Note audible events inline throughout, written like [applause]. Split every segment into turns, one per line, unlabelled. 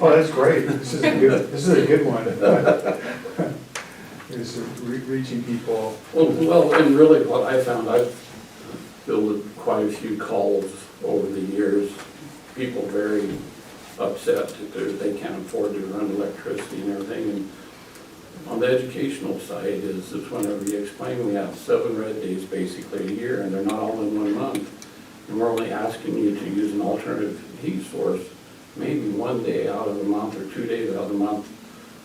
Oh, that's great. This is a good, this is a good one. [laughs] It's re- reaching people.
Well, Oh, well, and really what I found, I've fielded quite a few calls over the years. People very upset that they're- they can't afford to run electricity and everything. And On the educational side is, is whenever you explain, we have seven red days basically a year and they're not all in one month. And we're only asking you to use an alternative heat source, maybe one day out of the month or two days out of the month.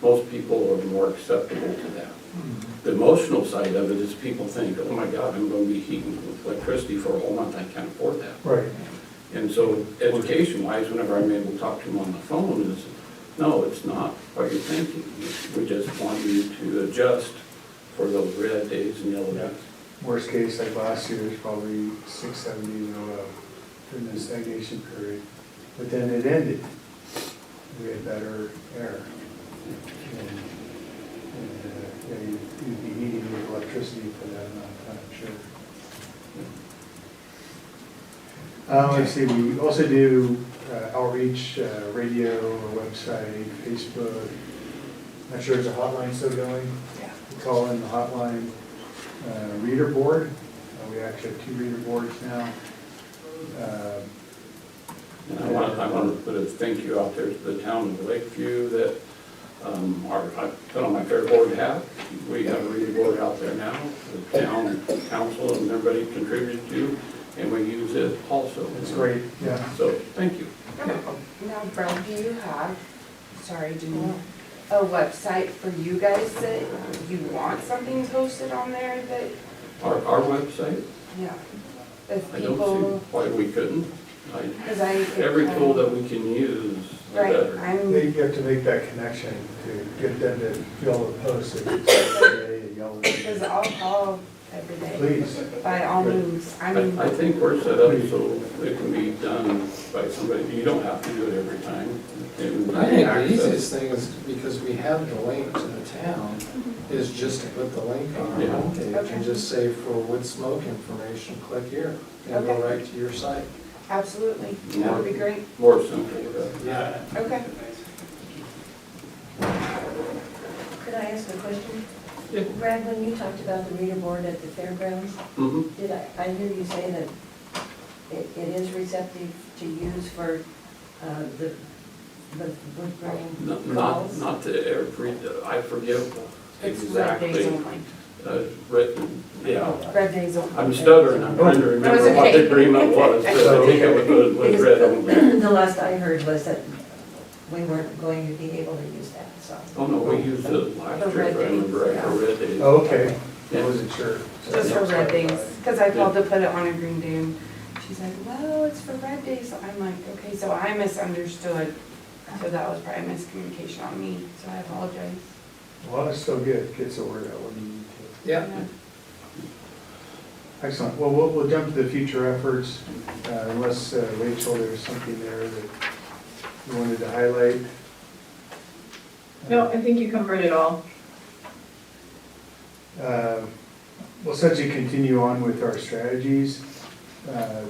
Most people are more acceptable to that. The emotional side of it is people think, oh my God, I'm gonna be heating with electricity for a whole month, I can't afford that.
Right.
And so education wise, whenever I'm able to talk to them on the phone is, no, it's not what you're thinking. We just want you to adjust for those red days and yellow days.
Worst case, like last year, it's probably six, seven days in a row during the stagnation period. But then it ended. We had better air. And, and, uh, yeah, you'd you'd be heating with electricity for that amount of time, sure. Uh, let's see, we also do uh, outreach, uh, radio, a website, Facebook. Not sure if the hotline's still going. Yeah. Call in the hotline, uh, reader board. Uh, We actually have two reader boards now. Uh,
And I want, I want to put a thank you out there to the town of Lakeview that, um, our, I put on my fair board hat. We have a reading board out there now, the town council and everybody contributed to, and we use it also.
It's great, yeah.
So, thank you.
Now, Brad, do you have, sorry, do you, a website for you guys that you want something posted on there that,
Our, our website,
yeah? If
I don't see
people,
why we couldn't. I-
because I.
Every tool that we can use, the
Right,
better.
They
I'm,
have to make that connection to get them to fill the post. if it's Saturday, a yellow
because
day.
I'll call every day,
Please,
by all means, I mean,
I, I think we're set up so it can be done by somebody. You don't have to do it every time. And
I think
access-
the easiest thing is, because we have the link to the town, is just to put the link on our
Yeah.
homepage
Okay.
and just say for wood smoke information, click here, and go
Okay.
right to your site.
absolutely, that would be great,
More simple, right?
Yeah.
okay.
Could I ask a question?
Yeah.
Brad, when you talked about the reader board at the fairgrounds,
Mhm.
did I, I hear you say that it, it is receptive to use for, uh, the, the wood
No-
grain
Not,
calls?
not to every, I forgive
It's red days
exactly.
only.
uh, written- Yeah,
Oh,
Red days only.
I'm stuttering, I'm trying to remember
That's
what the
okay.
agreement was, but I think it was, was read
[laughs]
only.
[clears throat] The last I heard was that we weren't going to be able to use that, so.
Oh, no, we used it last
The
year, if I
red
remember
days,
right, the red days.
Oh, okay, I
Yeah.
wasn't sure.
Just for red days, because I called to put it on a green day, and she's like, well, it's for red days, so I'm like, okay, so I misunderstood. So that was probably miscommunication on me, so I apologize.
Well, it's still good, gets the word out when you need to.
Yeah.
Excellent. Well, we'll, we'll jump to the future efforts, uh, unless uh, Rachel, there's something there that you wanted to highlight.
No, I think you covered it all.
Uh, We'll essentially continue on with our strategies uh,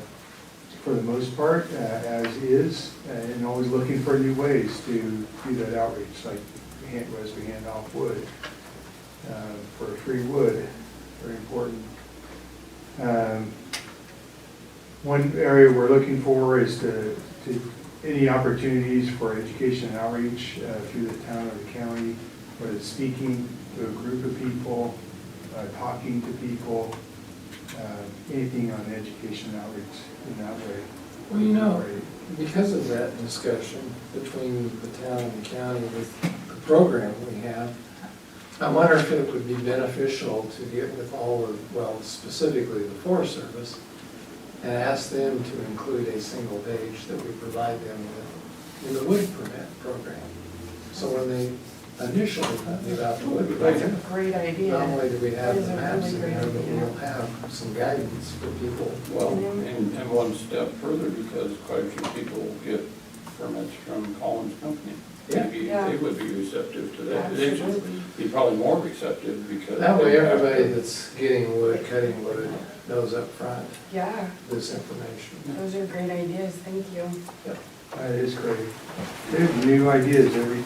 for the most part, uh, as is, uh, and always looking for new ways to do that outreach, like we hand- as we hand off wood uh, for free wood, very important. Um, One area we're looking for is to, to, any opportunities for education and outreach uh, through the town or the county, whether it's speaking to a group of people, uh, talking to people, uh, anything on education and outreach in that way.
Well, you know, because of that discussion between the town and the county with the program we have, I wonder if it would be beneficial to get with all of, well, specifically the Forest Service, and ask them to include a single page that we provide them with in the wood permit program. So when they initially thought about the wood
That's a
program,
great idea.
not only do we
That
have
is
the
a
maps
really
in
great
there, but
idea.
we'll have some guidance for people.
Well, and, and one step further, because quite a few people get permits from Collins Company.
Yeah.
Maybe
Yeah.
they would be receptive to that. They should
Absolutely.
be probably more receptive because.
That way,
they have to-
everybody that's getting wood, cutting wood, knows up front
Yeah,
this information.
those are great ideas, thank you.
Yep.
That is great. They have new ideas every